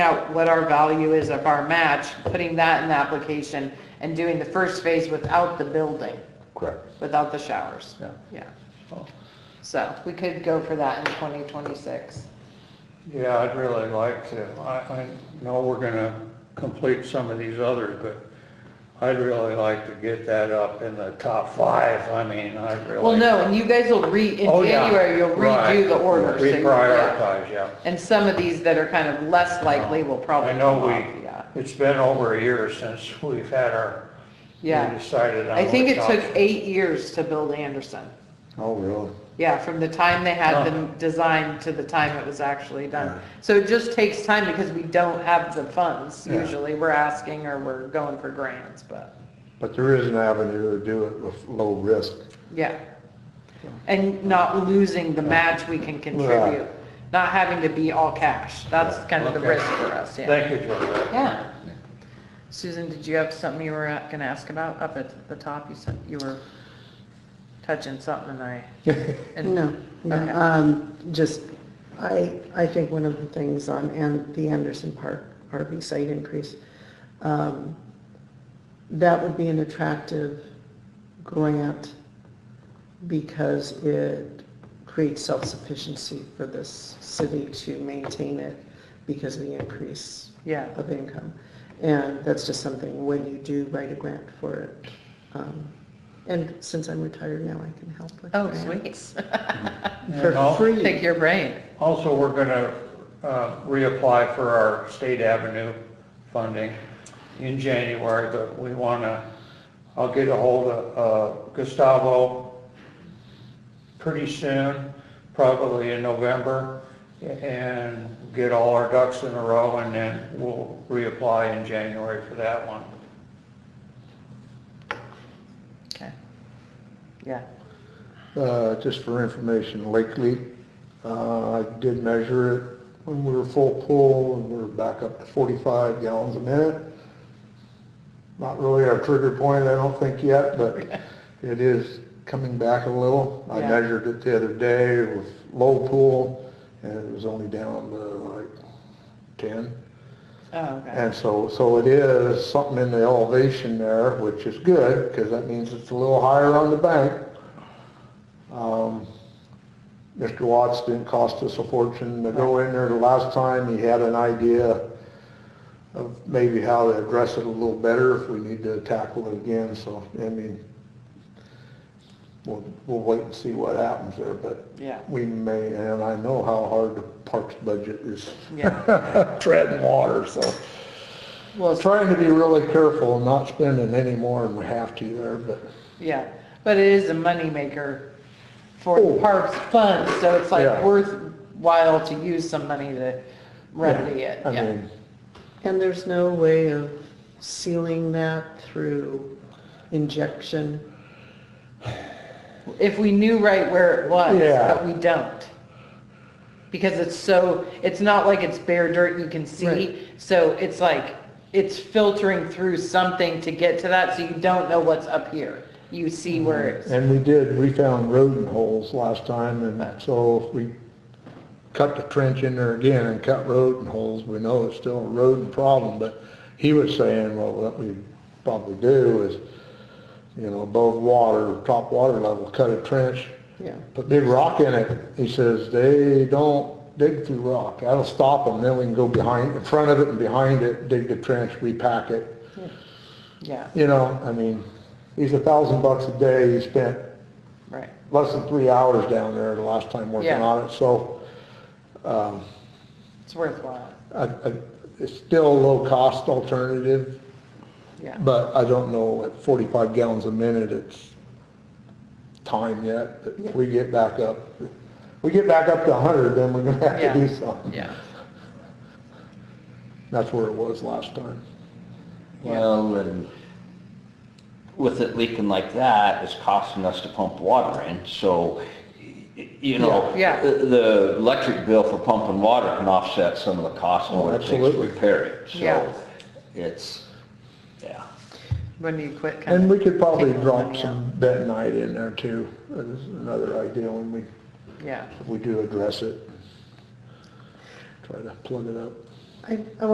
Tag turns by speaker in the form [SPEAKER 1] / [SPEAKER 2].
[SPEAKER 1] out what our value is of our match, putting that in the application and doing the first phase without the building,
[SPEAKER 2] Correct.
[SPEAKER 1] without the showers.
[SPEAKER 2] Yeah.
[SPEAKER 1] Yeah.
[SPEAKER 3] Oh.
[SPEAKER 1] So we could go for that in 2026.
[SPEAKER 3] Yeah, I'd really like to. I, I know we're gonna complete some of these others, but I'd really like to get that up in the top five. I mean, I really.
[SPEAKER 1] Well, no, and you guys will re, in
[SPEAKER 3] Oh, yeah.
[SPEAKER 1] January, you'll redo
[SPEAKER 3] Right.
[SPEAKER 1] the order. so you- yeah.
[SPEAKER 3] Reprioritize, yeah.
[SPEAKER 1] And some of these that are kind of less likely will probably
[SPEAKER 3] I
[SPEAKER 1] come
[SPEAKER 3] know
[SPEAKER 1] off, yeah.
[SPEAKER 3] we, it's been over a year since we've had our, we
[SPEAKER 1] Yeah.
[SPEAKER 3] decided on.
[SPEAKER 1] I think
[SPEAKER 3] what
[SPEAKER 1] it took
[SPEAKER 3] top-
[SPEAKER 1] eight years to build Anderson.
[SPEAKER 2] Oh, really?
[SPEAKER 1] Yeah, from the time they had
[SPEAKER 3] Huh.
[SPEAKER 1] them designed to the time it was actually done.
[SPEAKER 2] Yeah.
[SPEAKER 1] So it just takes time because we don't have the funds
[SPEAKER 2] Yeah.
[SPEAKER 1] usually. We're asking or we're going for grants, but,
[SPEAKER 2] But there is an avenue to do it with low risk.
[SPEAKER 1] yeah. And not losing the match we can contribute, not having to be all cash. That's kind of the
[SPEAKER 3] Okay.
[SPEAKER 1] risk for us, yeah.
[SPEAKER 3] Thank you, Georgia.
[SPEAKER 1] Yeah. Susan, did you have something you were uh, gonna ask about up at the top? You said you were touching something and I. and-
[SPEAKER 4] No,
[SPEAKER 1] Okay.
[SPEAKER 4] no, um, just, I, I think one of the things on, and the Anderson Park RV site increase, um, that would be an attractive grant because it creates self-sufficiency for this city to maintain it because of the increase
[SPEAKER 1] Yeah.
[SPEAKER 4] of income. And that's just something, when you do write a grant for it, um, and since I'm retired now, I can help with
[SPEAKER 1] Oh,
[SPEAKER 4] grants.
[SPEAKER 1] sweet.
[SPEAKER 3] And al-
[SPEAKER 4] For
[SPEAKER 1] Take
[SPEAKER 4] free.
[SPEAKER 1] your brain.
[SPEAKER 3] Also, we're gonna, uh, reapply for our State Avenue funding in January, but we wanna, I'll get a hold of, uh, Gustavo pretty soon, probably in November, and get all our ducks in a row, and then we'll reapply in January for that one.
[SPEAKER 1] Okay. Yeah.
[SPEAKER 2] Uh, Just for information, Lakely, uh, I did measure it when we were full pull and we we're back up to 45 gallons a minute. Not really our trigger point, I don't think yet, but it is coming back a little. I
[SPEAKER 1] Yeah.
[SPEAKER 2] measured it the other day with low pull and it was only down to like 10.
[SPEAKER 1] Oh, okay.
[SPEAKER 2] And so, so it is something in the elevation there, which is good, because that means it's a little higher on the bank. Um, Mr. Watts didn't cost us a fortune to go in there the last time. He had an idea of maybe how to address it a little better if we need to tackle it again, so, I mean, we'll, we'll wait and see what happens there, but
[SPEAKER 1] Yeah.
[SPEAKER 2] we may, and I know how hard the parks budget is
[SPEAKER 1] Yeah.
[SPEAKER 2] treading water, so.
[SPEAKER 1] Well, it's-
[SPEAKER 2] Trying to be really careful and not spending any more than we have to there, but
[SPEAKER 1] yeah, but it is a moneymaker for the
[SPEAKER 2] Oh.
[SPEAKER 1] parks fund, so it's like
[SPEAKER 2] Yeah.
[SPEAKER 1] worthwhile to use some money to remedy it,
[SPEAKER 2] I
[SPEAKER 1] yeah.
[SPEAKER 2] mean,
[SPEAKER 4] And there's no way of sealing that through injection.
[SPEAKER 1] If we knew right where it was,
[SPEAKER 2] Yeah.
[SPEAKER 1] but we don't. Because it's so, it's not like it's bare dirt you can see,
[SPEAKER 4] Right.
[SPEAKER 1] so it's like, it's filtering through something to get to that, so you don't know what's up here. You see where it's.
[SPEAKER 2] Mm-hmm. and we did, we found rodent holes last time, and so if we cut the trench in there again and cut rodent holes, we know it's still a rodent problem, but he was saying, well, what we probably do is, you know, above water, top water level, cut a trench,
[SPEAKER 4] Yeah.
[SPEAKER 2] put big rock in it. He says, they don't dig through rock. That'll stop them. Then we can go behind, in front of it and behind it, dig the trench, repack it.
[SPEAKER 1] Yeah,
[SPEAKER 2] You know, I mean, he's a thousand bucks a day. He spent
[SPEAKER 1] right.
[SPEAKER 2] less than three hours down there the last time working
[SPEAKER 1] Yeah.
[SPEAKER 2] on it. So
[SPEAKER 1] It's worthwhile,
[SPEAKER 2] I, I, it's still a low cost alternative,
[SPEAKER 1] yeah.
[SPEAKER 2] but I don't know at 45 gallons a minute, it's time yet. But if we get back up, we get back up to 100, then we're gonna have
[SPEAKER 1] Yeah.
[SPEAKER 2] to do something.
[SPEAKER 1] Yeah,
[SPEAKER 2] That's where it was last time.
[SPEAKER 1] Yeah.
[SPEAKER 5] Well, and with it leaking like that, it's costing us to pump water in, so, y- you know,
[SPEAKER 1] Yeah, yeah.
[SPEAKER 5] the the electric bill for pumping water can offset some of the cost and
[SPEAKER 2] Oh,
[SPEAKER 5] what it takes to
[SPEAKER 2] absolutely.
[SPEAKER 5] repair it,
[SPEAKER 1] Yeah.
[SPEAKER 5] so it's, yeah.
[SPEAKER 1] when you quit kind of.
[SPEAKER 2] And we could probably
[SPEAKER 1] taking
[SPEAKER 2] drop
[SPEAKER 1] money out.
[SPEAKER 2] some bentonite in there too. That is another idea when we,
[SPEAKER 1] Yeah.
[SPEAKER 2] if we do address it. Try to plug it up.
[SPEAKER 4] I, I